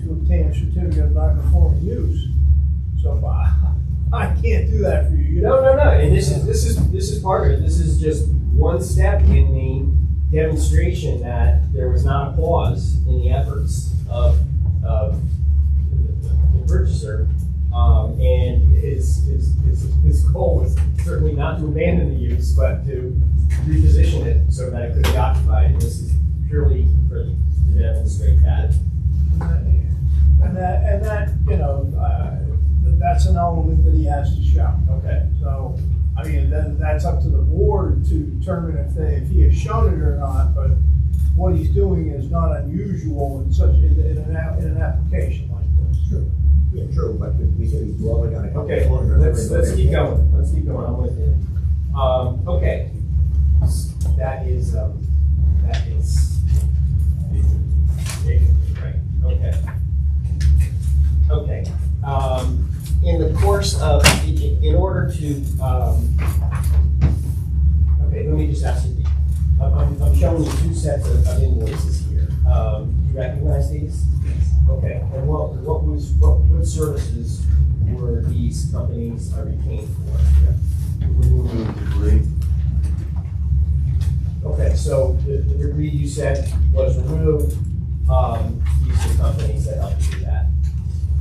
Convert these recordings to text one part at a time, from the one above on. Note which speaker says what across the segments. Speaker 1: to obtain a certificate of non-conforming use. So I, I can't do that for you, you
Speaker 2: No,
Speaker 1: know?
Speaker 2: no, no, and this is, this is, this is part of it, this is just one step in the demonstration that there was not a pause in the efforts of, of the purchaser. Um, and his, his, his, his goal was certainly not to abandon the use, but to reposition it so that it could be occupied, and this is purely for, to demonstrate that.
Speaker 1: And that, and that, you know, uh, that's an element that he has to show.
Speaker 2: Okay.
Speaker 1: So, I mean, then that's up to the board to determine if they, if he has shown it or not, but what he's doing is not unusual in such, in, in an, app- in an application like this.
Speaker 3: True, yeah, true, but we- we said we've only got a couple
Speaker 2: Okay,
Speaker 3: of corners.
Speaker 2: let's, let's keep going, let's keep going, I'm with you. Um, okay, that is, um, that is. Right, okay. Okay, um, in the course of, i- i- in order to, um, okay, let me just ask you, I'm- I'm, I'm showing you two sets of of invoices here. Um, do you recognize these? Okay, and what, what was, what, what services were these companies uh, retained for?
Speaker 4: Removing debris.
Speaker 2: Okay, so the, the debris you said was removed, um, these are companies that helped you do that.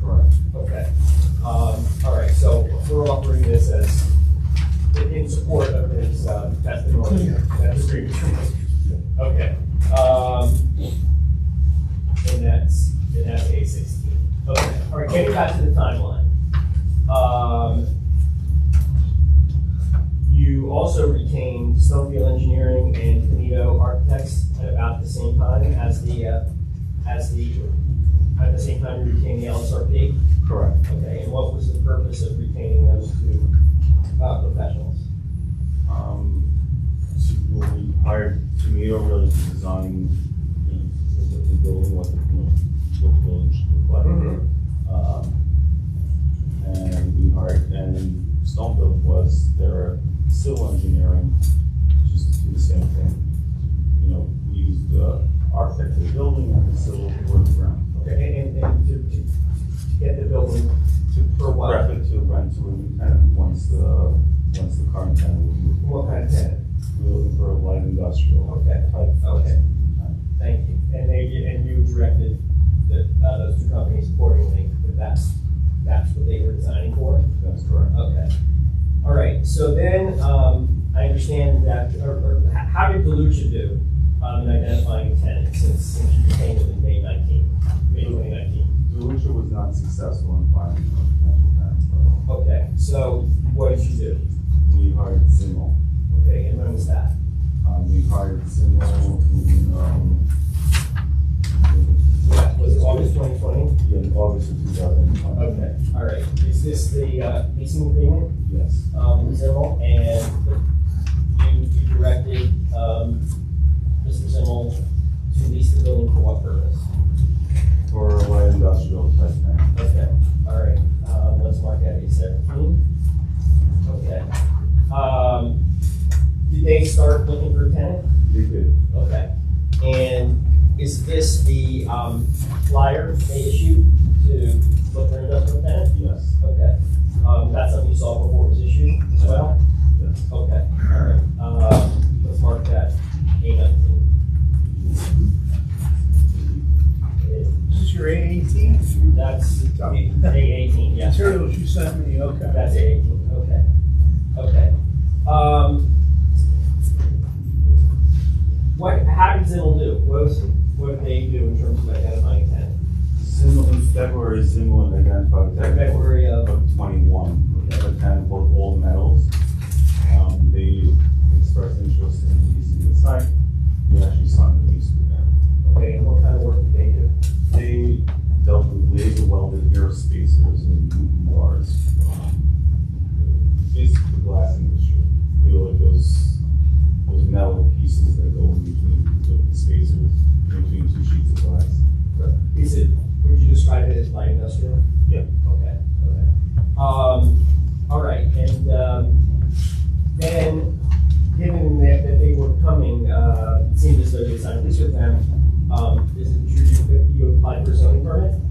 Speaker 4: Correct.
Speaker 2: Okay, um, all right, so we're offering this as, in- in support of his, uh, testimony, that's agreed. Okay, um, and that's, and that's A sixteen. Okay, all right, getting back to the timeline. Um, you also retained Snowfield Engineering and Canito Architects at about the same time as the, uh, as the, at the same time you retained the LSRP?
Speaker 4: Correct.
Speaker 2: Okay, and what was the purpose of retaining those two uh, professionals?
Speaker 4: Um, so when we hired Tomato really to design, you know, the, the building, what, the- you know, what the building should look like. Um, and we hired, and Stonebuilt was their civil engineering, just to do the same thing. You know, we used the architect of the building and the civil work around.
Speaker 2: Okay, and, and to, to to get the building to, for what?
Speaker 4: Prep it to rent to a new tenant once the, once the current tenant would move.
Speaker 2: What kind of tenant?
Speaker 4: We're looking for a light industrial
Speaker 2: Okay,
Speaker 4: type.
Speaker 2: okay, thank you. And they, and you directed the, uh, those two companies accordingly, that that's, that's what they were designing for?
Speaker 4: That's correct.
Speaker 2: Okay. All right, so then, um, I understand that, or, or h- how did Delucia do, um, in identifying a tenant since, since you became it in May nineteen, May twenty nineteen?
Speaker 4: Delucia was not successful in finding a potential tenant for
Speaker 2: Okay, so what did you do?
Speaker 4: it. We hired Simmel.
Speaker 2: Okay, and when was that?
Speaker 4: Um, we hired Simmel in, um,
Speaker 2: Was it August twenty twenty?
Speaker 4: in August of two thousand and five.
Speaker 2: Okay, all right. Is this the, uh, leasing agreement,
Speaker 4: Yes,
Speaker 2: um, Zimmel, and you, you directed, um, Mr. Zimmel to lease the building for what purpose?
Speaker 4: for a light industrial type tenant.
Speaker 2: Okay, all right, um, let's mark that at seventeen. "Hmm?" Okay. Um, did they start looking for a tenant?
Speaker 4: They did,
Speaker 2: Okay. And is this the, um, flyer they issued to look for an industrial tenant?
Speaker 4: yes,
Speaker 2: Okay. Um, that's something you saw before it was issued as well?
Speaker 4: yes.
Speaker 2: Okay, all right. Um, let's mark that A nineteen.
Speaker 1: Is this your eight eighteen?
Speaker 2: That's A eighteen, yes.
Speaker 1: Materials you sent me, okay.
Speaker 2: That's eighteen, okay, okay. Um, what, how did Zimmel do? What was, what did they do in terms of identifying tenant?
Speaker 4: Simmel in February, Simmel had identified a tenant.
Speaker 2: February of,
Speaker 4: of twenty-one, the other ten both old metals. Um, they expressed interest in leasing the site, we actually signed the lease with them.
Speaker 2: okay, and what kind of work did they do?
Speaker 4: They dealt with laser welded air spacers and bars, um, basically the glass industry. They were like those, those metal pieces that go in between the spacers, in between two sheets of glass.
Speaker 2: Is it, would you describe it as light industrial?
Speaker 4: Yeah.
Speaker 2: Okay, Um, okay. um, uh, um,